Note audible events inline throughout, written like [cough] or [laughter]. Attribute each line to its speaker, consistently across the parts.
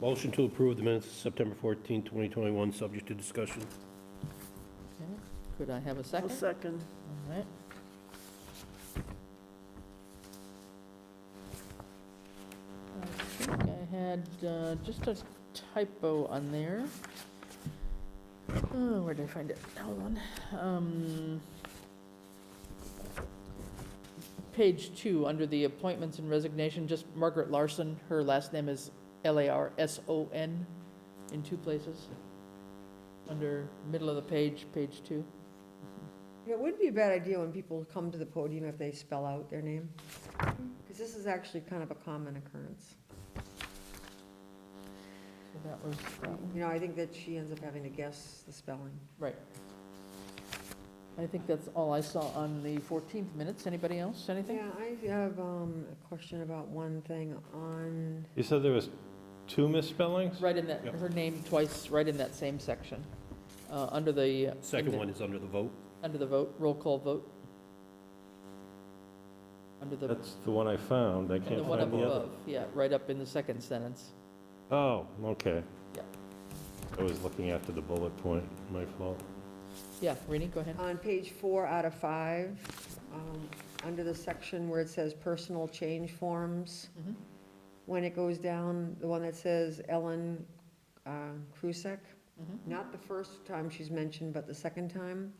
Speaker 1: Motion to approve the minutes of September 14, 2021, subject to discussion.
Speaker 2: Okay. Could I have a
Speaker 3: I'll
Speaker 2: second?
Speaker 3: second.
Speaker 2: All right. I think I had uh, just a typo on there. Oh, where did I find it? Hold on. Um, Page two, under the appointments and resignation, just Margaret Larson, her last name is L-A-R-S-O-N in two places. Under middle of the page, page two.
Speaker 4: It wouldn't be a bad idea when people come to the podium if they spell out their name, because this is actually kind of a common occurrence.
Speaker 2: So that was um, that one.
Speaker 4: You know, I think that she ends up having to guess the spelling.
Speaker 2: Right. I think that's all I saw on the 14th minutes. Anybody else, anything?
Speaker 4: Yeah, I have um, a question about one thing on,
Speaker 5: You said there was two misspellings?
Speaker 2: Right in that,
Speaker 1: Yep.
Speaker 2: her name twice, right in that same section, uh, under the. uh,
Speaker 1: Second
Speaker 2: under-
Speaker 1: one is under the vote.
Speaker 2: Under the vote, roll call vote. Under the,
Speaker 5: That's the one I found, I
Speaker 2: the
Speaker 5: can't
Speaker 2: one up
Speaker 5: find the other.
Speaker 2: above, yeah, right up in the second sentence.
Speaker 5: Oh, okay.
Speaker 2: Yeah.
Speaker 5: I was looking after the bullet point, my fault.
Speaker 2: Yeah, Rini, go ahead.
Speaker 4: on page four out of five, um, under the section where it says personal change forms,
Speaker 2: Mhm.
Speaker 4: when it goes down, the one that says Ellen uh, Krusek,
Speaker 2: Mhm.
Speaker 4: not the first time she's mentioned, but the second time.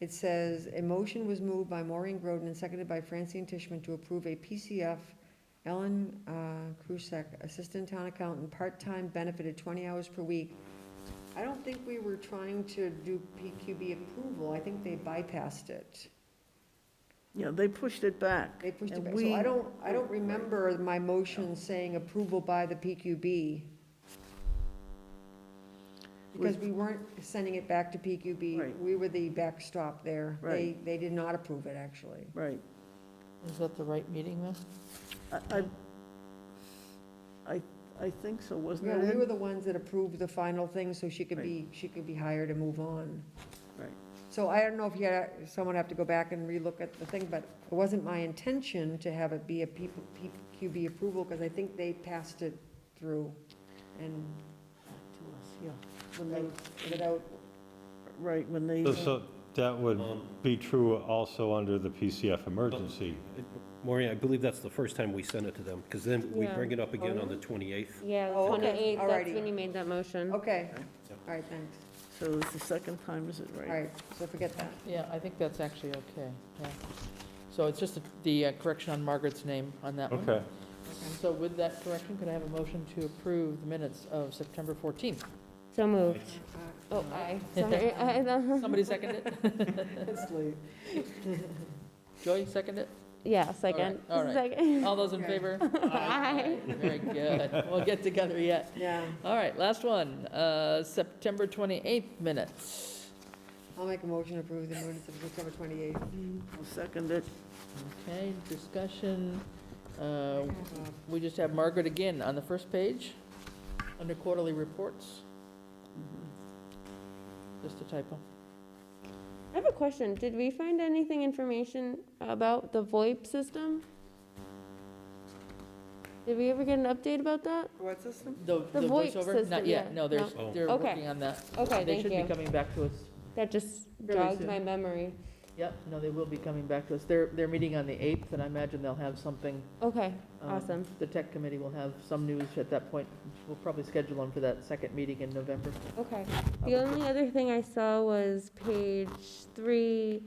Speaker 4: It says, "A motion was moved by Maureen Groden and seconded by Francine Tishman to approve a PCF Ellen uh, Krusek, Assistant Town Accountant, part-time benefited 20 hours per week." I don't think we were trying to do PQB approval. I think they bypassed it.
Speaker 3: Yeah, they pushed it back.
Speaker 4: They pushed it
Speaker 3: And
Speaker 4: back.
Speaker 3: we-
Speaker 4: So I don't, I don't remember my motion saying approval by the PQB. Because we weren't sending it back to PQB.
Speaker 3: Right.
Speaker 4: We were the backstop there. They,
Speaker 3: Right.
Speaker 4: they did not approve it, actually.
Speaker 3: Right.
Speaker 2: Is that the right meeting, though?
Speaker 3: I, I- I, I think so, wasn't
Speaker 4: Yeah, we
Speaker 3: it?
Speaker 4: were
Speaker 3: Ed?
Speaker 4: the ones that approved the final thing, so she could be, she could be hired and move on.
Speaker 3: Right.
Speaker 4: So I don't know if you, had- someone have to go back and relook at the thing, but it wasn't my intention to have it be a P- PQB approval, because I think they passed it through and
Speaker 3: To us, Yeah, when they,
Speaker 4: without, without
Speaker 3: right, when they,
Speaker 5: So- So that would
Speaker 1: Um,
Speaker 5: be true also under the PCF emergency.
Speaker 1: Maureen, I believe that's the first time we sent it to them, because then we
Speaker 6: Yeah.
Speaker 1: bring it up again on the 28th.
Speaker 6: Yeah,
Speaker 4: Oh, okay.
Speaker 6: 28, that's
Speaker 4: Alrighty.
Speaker 6: when you made that motion.
Speaker 4: Okay, Mm-hmm. all right, thanks.
Speaker 3: so it's the second time, is it
Speaker 4: All
Speaker 3: right?
Speaker 4: right, so forget that.
Speaker 2: Yeah, I think that's actually okay, yeah. So it's just the uh, correction on Margaret's name on that one.
Speaker 5: Okay.
Speaker 2: So with that correction, could I have a motion to approve the minutes of September 14th?
Speaker 6: So moved.
Speaker 4: Uh,
Speaker 6: Oh, aye. Sorry, I-
Speaker 2: [laughs]
Speaker 6: I-
Speaker 2: Somebody second it?
Speaker 3: [laughs] It's late.
Speaker 2: Joy, second it?
Speaker 6: Yeah, second.
Speaker 2: all right.
Speaker 6: Second. [laughs]
Speaker 2: All those in
Speaker 4: Okay. [laughs]
Speaker 2: favor? Very good. We'll get together yet.
Speaker 4: Yeah,
Speaker 2: All right, last one, uh, September 28th minutes.
Speaker 4: I'll make a motion to approve the minutes of September twenty-eighth.
Speaker 3: I'll second it.
Speaker 2: Okay, discussion. Uh,
Speaker 4: Um,
Speaker 2: We just have Margaret again on the first page, under quarterly reports.
Speaker 3: Mm-hmm.
Speaker 2: Just a typo.
Speaker 6: I have a question. Did we find anything information about the VoIP system? Did we ever get an update about that?
Speaker 3: What system?
Speaker 2: The
Speaker 6: The VoIP
Speaker 2: voiceover? Not
Speaker 6: system,
Speaker 2: yet,
Speaker 6: yeah,
Speaker 2: no, there's,
Speaker 1: no.
Speaker 2: they're
Speaker 6: Okay.
Speaker 2: working on that.
Speaker 6: Okay,
Speaker 2: They
Speaker 6: thank
Speaker 2: should be
Speaker 6: you.
Speaker 2: coming back to us
Speaker 6: That just
Speaker 2: Really
Speaker 6: jogged
Speaker 2: soon.
Speaker 6: my memory.
Speaker 2: Yep, no, they will be coming back to us. They're, they're meeting on the 8th, and I imagine they'll have something.
Speaker 6: Okay,
Speaker 2: um,
Speaker 6: awesome.
Speaker 2: The tech committee will have some news at that point. We'll probably schedule them for that second meeting in November.
Speaker 6: Okay. The only other thing I saw was page three,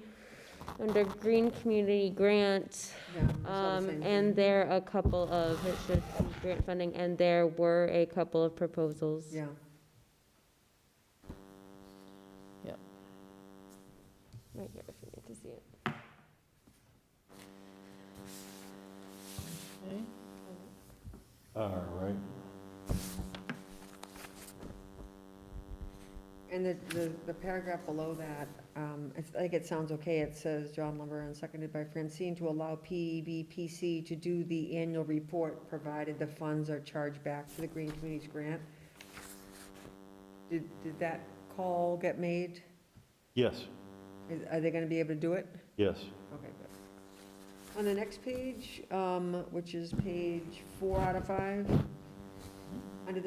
Speaker 6: under green community grant. Um, and there a couple of, it should be grant funding, and there were a couple of proposals.
Speaker 4: Yeah,
Speaker 6: Right here, if you need to see it.
Speaker 2: Okay.
Speaker 5: All right.
Speaker 4: and the, the, the paragraph below that, um, I think it sounds okay, it says John Lumber and seconded by Francine to allow E PEBPC to do the annual report, provided the funds are charged back to the Green Communities Grant. Did, did that call get made?
Speaker 5: Yes,
Speaker 4: Is- Are they gonna be able to do it?
Speaker 5: yes.
Speaker 4: Okay, good. On the next page, um, which is page four out of five,